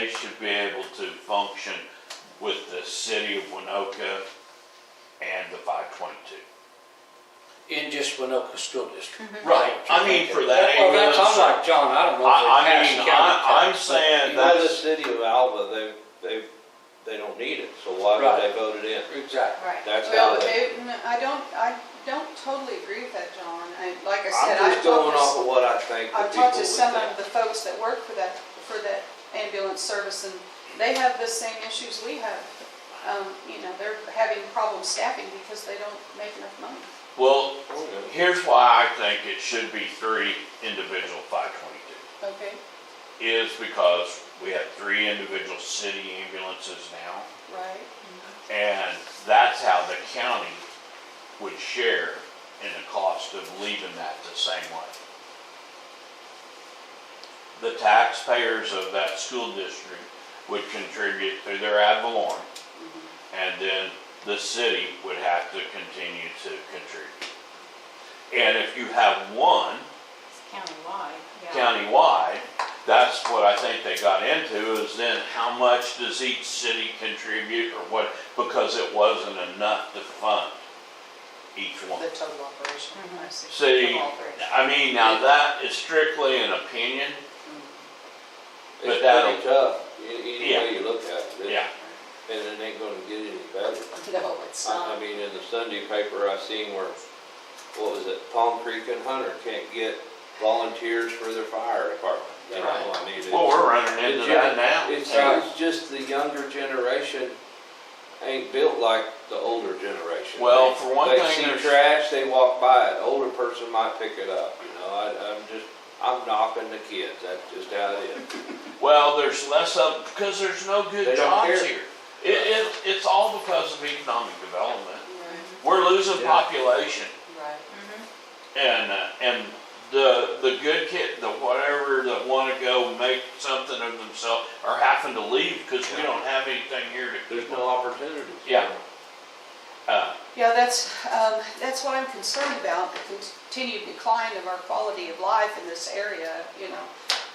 They should be able to function with the city of Winoka and the five twenty-two. in just Winoka School District. Right, I mean, for that Well, that's, ambulance, I'm like, John, I don't know. I- I if they mean, pass county I- I'm tax, but- saying You that- know, the city of Alva, they, they, they don't need it, so why would they vote it in? Exactly. Right. That's Well, how but they- they- I don't, I don't totally agree with that, John. I, like I said, I'm I've just going talked off to, of what I think the I've people would talked to some of think. the folks that work for that, for that ambulance service and they have the same issues we have. Um, you know, they're having problem staffing because they don't make enough money. well, Oh, yeah. here's why I think it should be three individual five twenty-two. Okay. Is because we have three individual city ambulances now. Right. And that's how the county would share in the cost of leaving that the same way. The taxpayers of that school district would contribute through their ad valorem, and then the city would have to continue to contribute. And if you have one It's countywide, yeah. countywide, that's what I think they got into, is then how much does each city contribute or what, because it wasn't enough to fund each one. The total operation, I see. See, Total operation. I mean, now that is strictly an opinion, But It's that'll- pretty tough, e- any Yeah. way you look at it. yeah, And it ain't gonna get any better. No, it's I not. I Um. mean, in the Sunday paper, I seen where, what was it, Palm Creek and Hunter can't get volunteers for their fire department. You know, I mean, it's- well, we're running into that now. It's, uh, it's just the younger generation ain't built like the older generation. Well, for one thing, They there's- see trash, they walk by it, older person might pick it up, you know, I, I'm just, I'm knocking the kids, that's just how it is. Well, there's less of, because there's no They good don't jobs care. here. It, it, it's all because of economic development. Right, We're losing Yeah. population. right. And, uh, and the, the good kid, the whatever that wanna go make something of themselves are having to leave because we don't have anything here to keep There's them. no opportunities. Yeah. Uh, Yeah, that's, um, that's what I'm concerned about, the continued decline of our quality of life in this area, you know.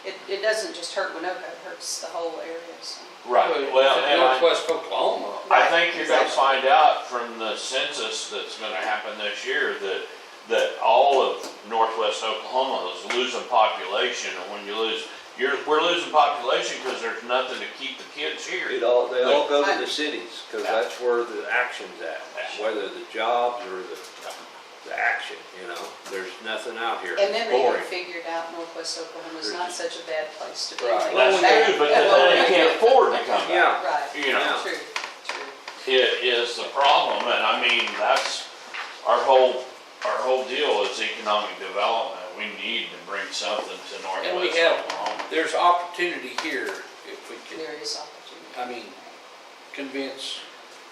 It, it doesn't just hurt Winoka, it hurts the whole area, so. right, well, and I, Northwest Oklahoma. I think you're gonna find out from the census that's gonna happen this year that, that all of northwest Oklahoma is losing population. And when you lose, you're, we're losing population because there's nothing to keep the kids here. It all, they all go to the cities, cause that's where the action's at, whether the jobs or the, the action, you know, there's nothing out here. And then they Boring. have figured out Northwest Oklahoma's not such a bad place to be. Right. They go That's back- true, but Yeah, then well, they can't afford to come back. Yeah. Right. you know. True, true. it is the problem, and I mean, that's, our whole, our whole deal is economic development. We need to bring something to Northwest And we have- Oklahoma. There's opportunity here if we can, There is opportunity. I mean, convince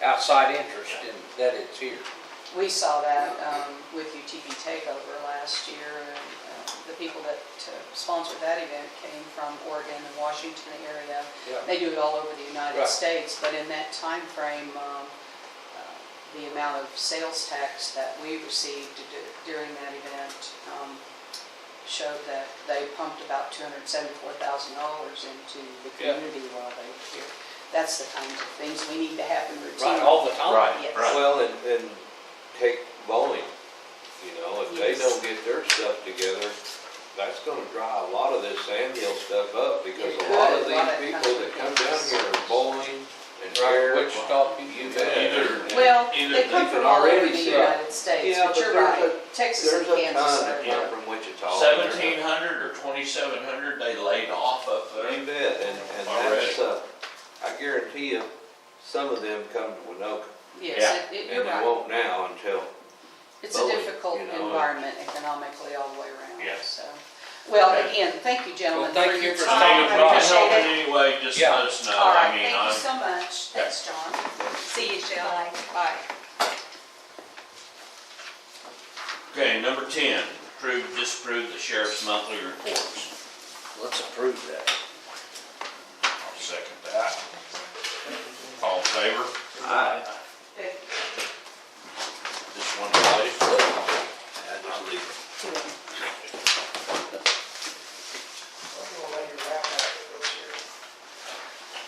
outside interest in that it's here. We saw that um, with UTV takeover last year, and uh, the people that uh, sponsored that event came from Oregon and Washington area. Yeah. They do it all over the United Right. States, but in that timeframe, um, uh, the amount of sales tax that we received d- during that event um, showed that they pumped about $274,000 into the Yeah. community while they were here. That's the kinds of things we need to happen Right, routinely. all the time. Right, Yes. right. Well, and, and take bowling, you know, if they don't get their stuff together, that's gonna dry a lot of this Sandhill stuff up, because a lot of It could, a lot of these people that come down here are bowling and Right, here. Wichita, You you bet. Either- Well, Either they come they can from all over already the see it. United States, Yeah, but but you're there's right, Texas There's and a Kansas ton that are. come from Wichita. Seventeen hundred or twenty-seven hundred they laid off up You there. bet, and, and that's, uh, I guarantee you, some of them come to Winoka, Yes, it- it- and you're they right. won't now until It's a both, difficult you know, and- environment economically all the way Yeah. around, so. Well, Okay. again, thank you, gentlemen, Well, for thank your you for staying time. Oh, I If I can help appreciate in it. any way, just Yeah. let us know. All I right, mean, uh, thank I'm, you so much. Thanks, John. See you, Jill. Bye. Bye. okay, number ten, approve, disapprove the sheriff's monthly reports. Let's approve that. I'll second that. All in favor? Aye.